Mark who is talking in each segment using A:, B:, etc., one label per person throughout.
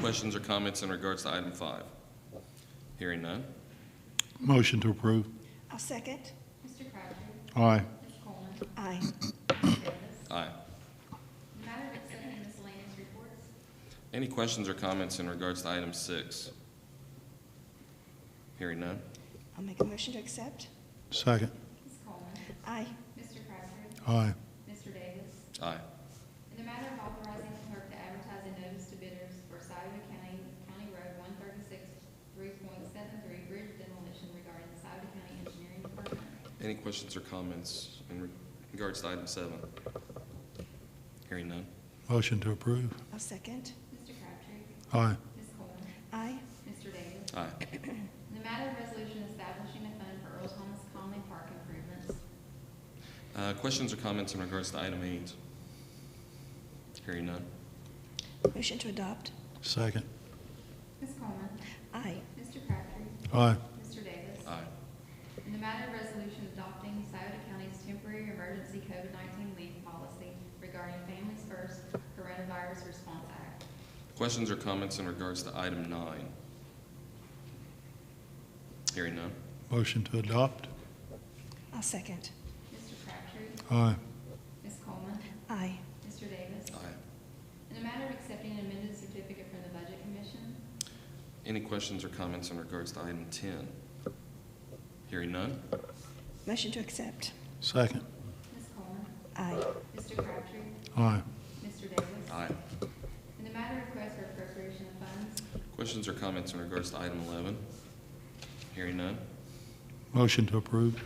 A: questions or comments in regards to item five? Hearing none.
B: Motion to approve.
C: I'll second.
D: Mr. Crabtree.
B: Aye.
D: Ms. Coleman.
C: Aye.
D: Ms. Davis.
A: Aye.
D: Matter of accepting miscellaneous reports.
A: Any questions or comments in regards to item six? Hearing none.
C: I'll make a motion to accept.
B: Second.
D: Ms. Coleman.
C: Aye.
D: Mr. Crabtree.
B: Aye.
D: Mr. Davis.
A: Aye.
D: In the matter of authorizing the clerk to advertise a notice to bidders for Souda County, County Road one thirty-six, three point seven three, bridge demolition regarding the Souda County Engineering Department.
A: Any questions or comments in regards to item seven? Hearing none.
B: Motion to approve.
C: I'll second.
D: Mr. Crabtree.
B: Aye.
D: Ms. Coleman.
C: Aye.
D: Mr. Davis.
A: Aye.
D: In the matter of resolution establishing a fund for Earl Thomas Conley Park improvements.
A: Uh, Questions or comments in regards to item eight? Hearing none.
C: Motion to adopt.
B: Second.
D: Ms. Coleman.
C: Aye.
D: Mr. Crabtree.
B: Aye.
D: Mr. Davis.
A: Aye.
D: In the matter of resolution adopting Souda County's temporary emergency COVID-19 leave policy regarding Families First Coronavirus Response Act.
A: Questions or comments in regards to item nine? Hearing none.
B: Motion to adopt.
C: I'll second.
D: Mr. Crabtree.
B: Aye.
D: Ms. Coleman.
C: Aye.
D: Mr. Davis.
A: Aye.
D: In the matter of accepting an amended certificate from the Budget Commission.
A: Any questions or comments in regards to item 10? Hearing none.
C: Motion to accept.
B: Second.
D: Ms. Coleman.
C: Aye.
D: Mr. Crabtree.
B: Aye.
D: Mr. Davis.
A: Aye.
D: In the matter of request for appropriation of funds.
A: Questions or comments in regards to item 11? Hearing none.
B: Motion to approve.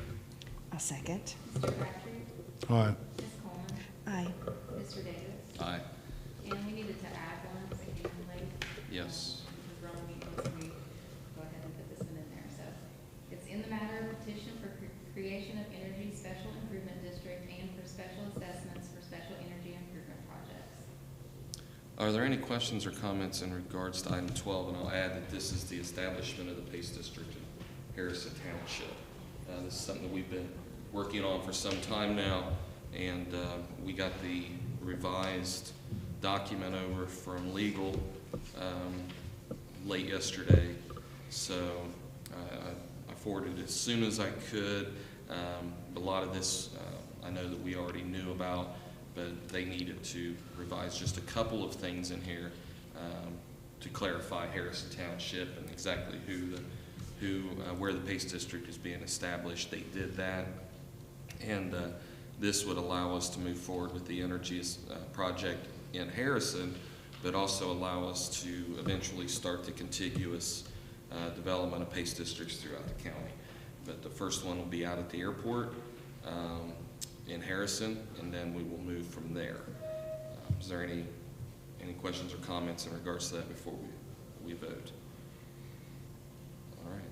C: I'll second.
D: Mr. Crabtree.
B: Aye.
D: Ms. Coleman.
C: Aye.
D: Mr. Davis.
A: Aye.
D: And we needed to add one, so you can like, um,
A: Yes.
D: Because we're on meeting, so we go ahead and put this one in there, so. It's in the matter of petition for cre- creation of energy special improvement district and for special assessments for special energy improvement projects.
A: Are there any questions or comments in regards to item 12? And I'll add that this is the establishment of the Pace District in Harrison Township. Uh, This is something that we've been working on for some time now, and uh, we got the revised document over from legal um, late yesterday. So uh, I- I I forwarded it as soon as I could. Um, A lot of this, uh, I know that we already knew about, but they needed to revise just a couple of things in here um, to clarify Harrison Township and exactly who, the who, uh, where the Pace District is being established. They did that. And uh, this would allow us to move forward with the energy uh, project in Harrison, but also allow us to eventually start the contiguous uh, development of PACE districts throughout the county. But the first one will be out at the airport um, in Harrison, and then we will move from there. Uh, Is there any, any questions or comments in regards to that before we, we vote? All right,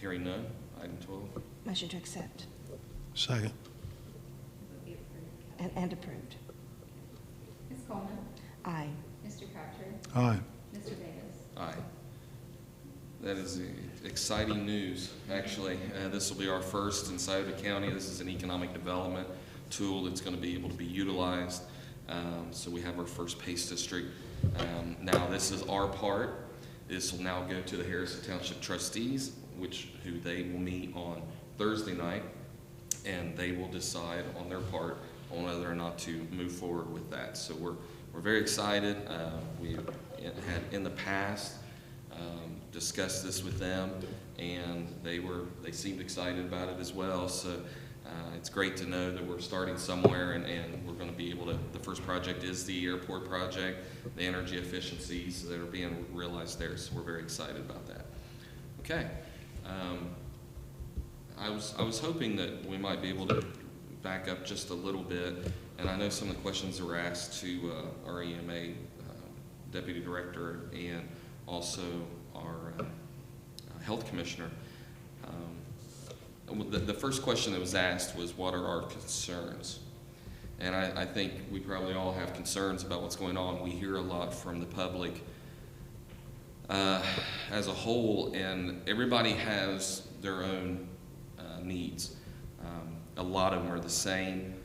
A: hearing none, item 12.
C: Motion to accept
B: Second.
D: It would be approved.
C: and, and approved.
D: Ms. Coleman.
C: Aye.
D: Mr. Crabtree.
B: Aye.
D: Mr. Davis.
A: Aye. That is uh, exciting news, actually. Uh, This will be our first in Souda County. This is an economic development tool that's going to be able to be utilized. Um, So we have our first PACE district. Um, Now, this is our part. This will now go to the Harrison Township trustees, which, who they will meet on Thursday night, and they will decide on their part on whether or not to move forward with that. So we're, we're very excited. Uh, We had in the past um, discussed this with them, and they were, they seemed excited about it as well. So uh, it's great to know that we're starting somewhere and, and we're going to be able to, the first project is the airport project, the energy efficiencies that are being realized there, so we're very excited about that. Okay. Um, I was, I was hoping that we might be able to back up just a little bit, and I know some of the questions that were asked to uh, our EMA uh, Deputy Director and also our uh, uh, Health Commissioner. Um, The, the first question that was asked was, what are our concerns? And I, I think we probably all have concerns about what's going on. We hear a lot from the public uh, as a whole, and everybody has their own uh, needs. Um, A lot of them are the same.